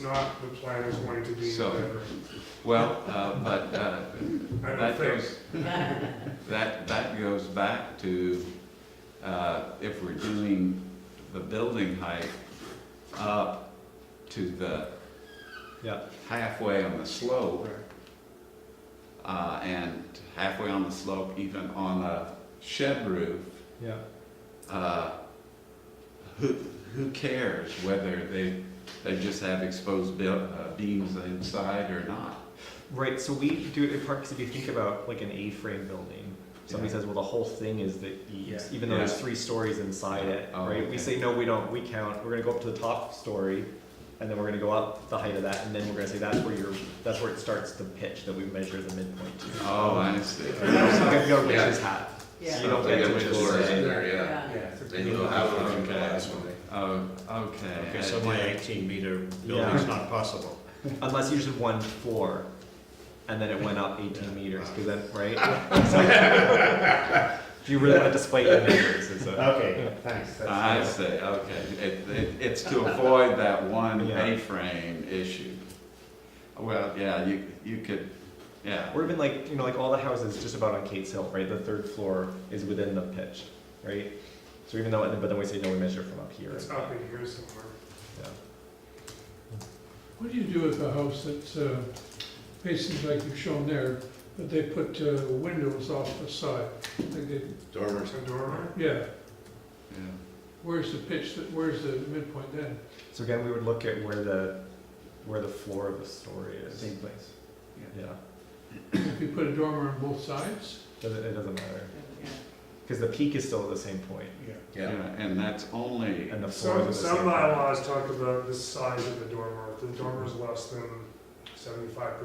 not the plan is going to be in So- Denver. Well, uh, but uh, I don't think. that goes, that, that goes back to, uh, if we're doing the building height up to the Yeah. halfway on the slope, Right. uh, and halfway on the slope, even on a shed roof, Yeah, uh, who, who cares whether they, they just have exposed buil- uh, beams inside or not? right, so we do it in part because if you think about like an A-frame building, somebody Yeah. says, well, the whole thing is the eaves, even though Yeah. there's three stories inside it, Oh, right? okay. We say, no, we don't, we count, we're gonna go up to the top story, and then we're gonna go up the height of that, and then we're gonna say, that's where your, that's where it starts to pitch, that we measure the midpoint to. Oh, I see. It's not gonna go Yeah. witch's hat. Yeah. You don't They get to got just floors in say, there, yeah. Yeah. They know how to run glass when they. Oh, okay. Okay, so my eighteen meter building's not possible. unless you just did one floor, and then it went up eighteen meters, because then, right? If you really wanna display your measures, it's a. Okay, thanks. Uh-huh. I see, okay. It, it, it's to avoid that one Yeah. A-frame issue. Well, yeah, you, you could, yeah, Or even like, you know, like all the houses just about on Kate's Hill, right? The third floor is within the pitch, right? So even though, but then we say, no, we measure from up here. It's up in here somewhere. Yeah. What do you do with a house that's uh, basically like you've shown there, but they put uh, windows off the side? Like they, Dormers. There's a dormer. yeah, yeah. where's the pitch, that- where's the midpoint then? So again, we would look at where the, where the floor of the story is. Same place. Yeah, If you put a dormer on both sides? doesn't, it doesn't matter, because the peak is still at the same point, Yeah. Yeah. And that's only, and the floor Some, is at the same. some point. bylaws talk about the size of the dormer. If the dormer is less than seventy-five